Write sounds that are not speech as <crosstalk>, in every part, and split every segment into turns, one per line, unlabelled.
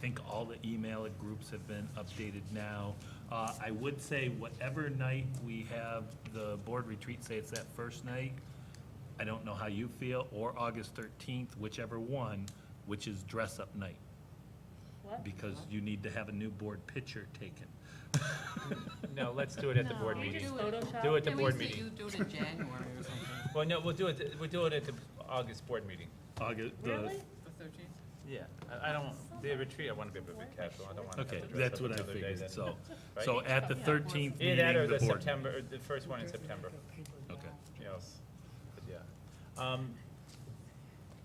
think all the email groups have been updated now. Uh, I would say whatever night we have the board retreat, say it's that first night, I don't know how you feel, or August 13th, whichever one, which is dress-up night,
What?
because you need to have a new board picture taken.
No, let's do it at the board
You just
meeting.
Photoshop?
Do it at the
Can we
board
see you
meeting.
do
<laughs>
it in January or something?
Well, no, we'll do it, we'll do it at the August board meeting.
August, the-
Really?
The thirteenth?
Yeah, I, I don't, the retreat, I want to be a bit casual, I don't want to have to
Okay,
dress up.
that's what I
another day
figured,
then.
so,
Right?
so at the 13th meeting,
Either that or
the
the
board.
September, or the first one in September,
Okay.
yes, but yeah. Um,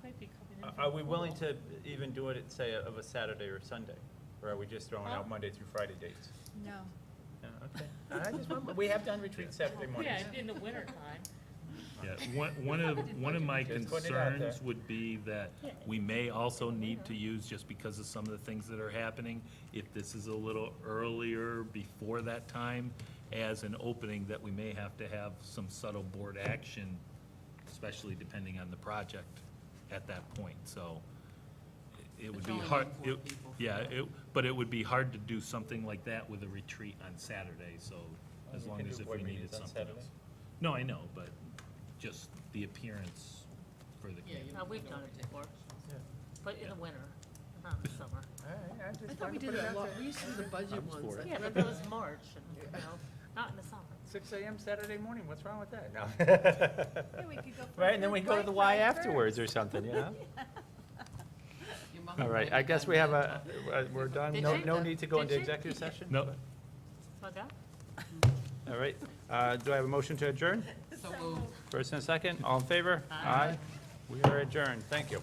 Might be coming in
Are-
from
Are we willing
Google.
to even do it, at, say, of a Saturday or Sunday? Or are we just throwing out
Huh?
Monday through Friday dates?
No.
Yeah, okay. <laughs> I just want- We have done retreats Saturday mornings.
Yeah, in the winter time.
Yeah, one, one of, one of my
Just putting it out there.
concerns would be that we may also need to use, just because of some of the things that are happening, if this is a little earlier before that time, as an opening, that we may have to have some subtle board action, especially depending on the project at that point, so it would
It's
be
only
hard.
four
it-
people.
Yeah, it, but it would be hard to do something like that with a retreat on Saturday, so as
We
long
can
as
do
if
board
we needed
meetings on
something
Saturday.
else. No, I know, but just the appearance for the
Yeah,
community.
Uh, we've done it before,
Yeah.
but in the winter, not in the
<laughs>
summer.
All right, I
I
just
thought we
wanted
did
to put it
it a
out
lot,
there.
we used to do the budget
I'm
ones.
for it.
I
Yeah, but
remember-
that was March, and, you know, not in the summer.
Six AM Saturday morning, what's wrong with that? <laughs> No. Right, and then we go to the Y afterwards or something,
<laughs>
you know? All right, I guess we have a, uh, we're done,
Did
no,
she?
no need to go
Did
into
she?
executive session?
No,
So that,
All right, uh, do I have a motion to adjourn?
So moved.
First and a second, all in favor? Aye. We are adjourned, thank you.